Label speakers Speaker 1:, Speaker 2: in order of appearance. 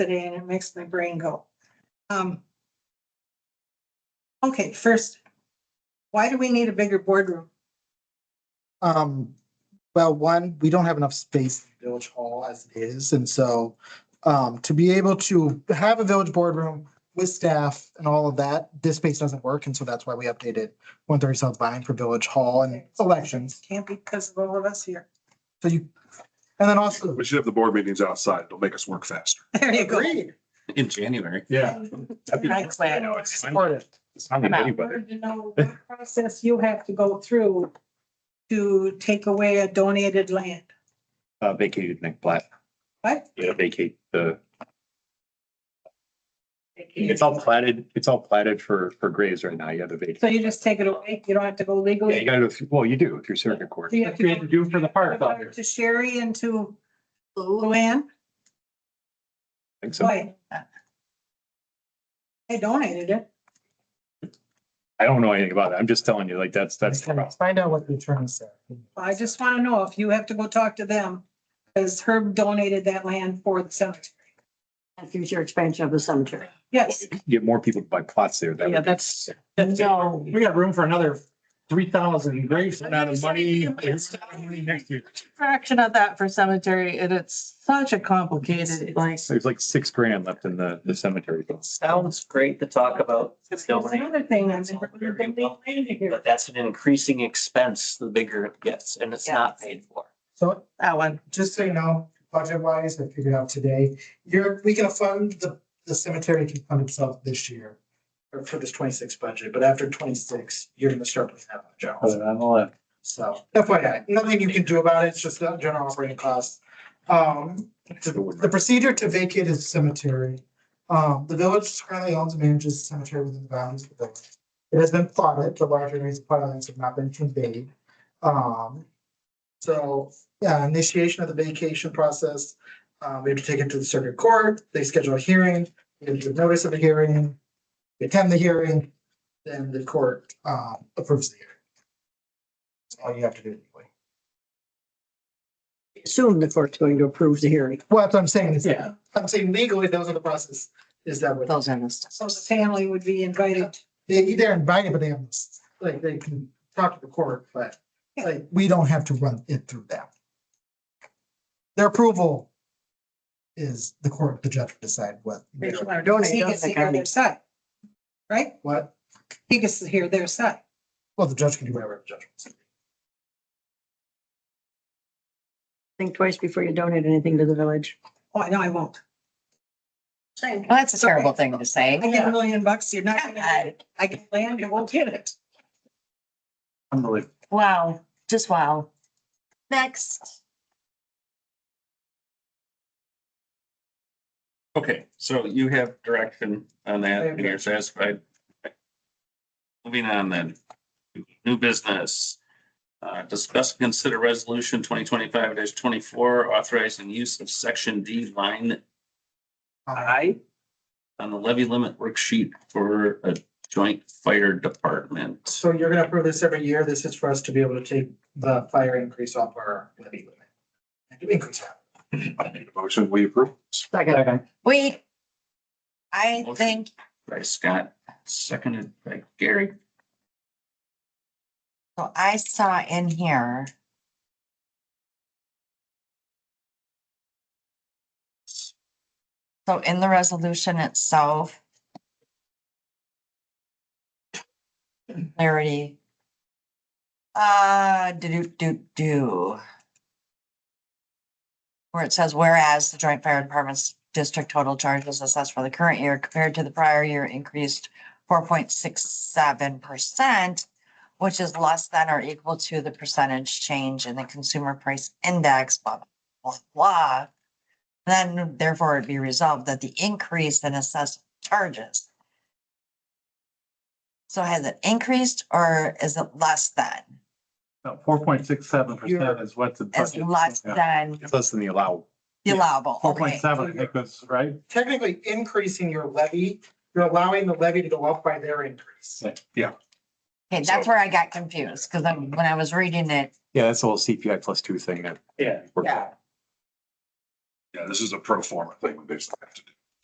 Speaker 1: today and it makes my brain go. Um. Okay, first, why do we need a bigger boardroom?
Speaker 2: Um, well, one, we don't have enough space in Village Hall as it is, and so um, to be able to have a village boardroom with staff and all of that, this space doesn't work, and so that's why we updated one thirty South Vine for Village Hall and elections.
Speaker 1: Can't be because of all of us here.
Speaker 2: So you, and then also.
Speaker 3: We should have the board meetings outside. It'll make us work faster.
Speaker 1: There you go.
Speaker 2: Agreed.
Speaker 4: in January.
Speaker 1: I
Speaker 3: I know, it's fine.
Speaker 2: Support it.
Speaker 4: It's not
Speaker 1: I'm
Speaker 4: gonna
Speaker 1: out.
Speaker 4: be better.
Speaker 1: Wanted to know what Process you have to go through to take away a donated land.
Speaker 4: Uh, vacated Nick Platt,
Speaker 1: What?
Speaker 4: yeah, vacate the, it's all platted, it's all platted for, for graves right now. You have to vacate.
Speaker 1: So you just take it away? You don't have to go legally?
Speaker 4: Yeah, you gotta, go through- well, you do if you're circuit court.
Speaker 1: Do you have to go-
Speaker 5: do for the park out here.
Speaker 1: To Sherry and to Luann?
Speaker 4: I think so.
Speaker 1: Why? I donated it.
Speaker 4: I don't know anything about it. I'm just telling you, like, that's, that's. the problem.
Speaker 2: Find out what the attorney said.
Speaker 1: I just want to know if you have to go talk to them, because Herb donated that land for the cemetery.
Speaker 6: and future expansion of the cemetery.
Speaker 1: Yes,
Speaker 4: Get more people to buy plots there. That
Speaker 5: Yeah,
Speaker 4: would be-
Speaker 5: that's, that's, it.
Speaker 6: No,
Speaker 5: we got room for another three thousand graves.
Speaker 7: Not of money.
Speaker 5: Next year.
Speaker 7: fraction of that for cemetery and it's such a complicated, like.
Speaker 4: There's like six grand left in the, the cemetery. bill.
Speaker 8: Sounds great to talk about,
Speaker 1: there's
Speaker 8: donating,
Speaker 1: another thing. I'm-
Speaker 8: but that's an increasing expense the bigger it gets, and it's not paid for.
Speaker 2: So
Speaker 7: That one.
Speaker 2: just so you know, budget wise, I figured out today, you're, we can fund the, the cemetery can fund itself this year. Or for this twenty-six budget, but after twenty-six, you're gonna start with that general, so FYI, nothing you can do about it, it's just the general operating costs. Um, the the procedure to vacate a cemetery, um, the village currently owns and manages the cemetery within the bounds of the village. It has been plotted, the larger areas of plot lines have not been conveyed. Um, so yeah, initiation of the vacation process. Um, we have to take it to the circuit court, they schedule a hearing, we have to give notice of the hearing, we attend the hearing, then the court, uh, approves the hearing. That's all you have to do. anyway.
Speaker 6: assume the court's going to approve the hearing.
Speaker 2: Well, that's what I'm saying is,
Speaker 5: Yeah.
Speaker 2: I'm saying legally, those are the process, is that what,
Speaker 6: Those are the stuff.
Speaker 1: So the family would be invited.
Speaker 2: they, they're invited, but they have, like, they can talk to the court, but like, we don't have to run it through them. Their approval is the court, the judge will decide what,
Speaker 1: They don't wanna
Speaker 6: Donate,
Speaker 1: He
Speaker 6: don't
Speaker 1: gets to
Speaker 6: they,
Speaker 1: hear their
Speaker 6: Connie?
Speaker 1: side. Right?
Speaker 2: what
Speaker 1: He gets to hear their side.
Speaker 2: Well, the judge can do whatever the judge wants.
Speaker 6: Think twice before you donate anything to the village.
Speaker 1: Oh, no, I won't.
Speaker 6: Same.
Speaker 9: Well, that's a terrible thing to
Speaker 1: I
Speaker 9: say.
Speaker 1: get a million bucks, you're not gonna, get it. I get land, you won't get it.
Speaker 5: Unbelievable.
Speaker 9: Wow, just wow. Next.
Speaker 4: Okay, so you have direction on that and you're satisfied. Moving on then, new business. Uh, discuss, and consider resolution twenty twenty-five twenty-four authorizing use of section D line I on the levy limit worksheet for a joint fire department.
Speaker 2: So you're gonna approve this every year. This is for us to be able to take the fire increase off our levy limit. And do increase that.
Speaker 3: Motion, we approve.
Speaker 6: Second.
Speaker 9: Wait. I
Speaker 4: Motion.
Speaker 9: think
Speaker 4: By Scott, seconded by Gary.
Speaker 9: so I saw in here. So in the resolution itself. Clarity. Uh, do, do, do. Where it says whereas the joint fire department's district total charges assessed for the current year compared to the prior year increased four point six seven percent which is less than or equal to the percentage change in the consumer price index, blah, blah, blah, blah. Then therefore it be resolved that the increase in assessed charges. So has it increased or is it less than?
Speaker 5: Four point six seven percent is what's. the
Speaker 9: Is
Speaker 5: budget.
Speaker 9: less than
Speaker 4: It's Less than the allowable.
Speaker 9: the
Speaker 5: Yeah,
Speaker 9: allowable?
Speaker 5: Four point
Speaker 9: Okay.
Speaker 5: seven, I think was right.
Speaker 2: Technically increasing your levy, you're allowing the levy to go up by their increase.
Speaker 9: Okay, that's where I got confused because when I was reading it,
Speaker 4: Yeah, that's the whole CPI plus two thing that.
Speaker 5: Yeah.
Speaker 4: we're-
Speaker 3: Yeah, this is a pro forma thing we basically have to do.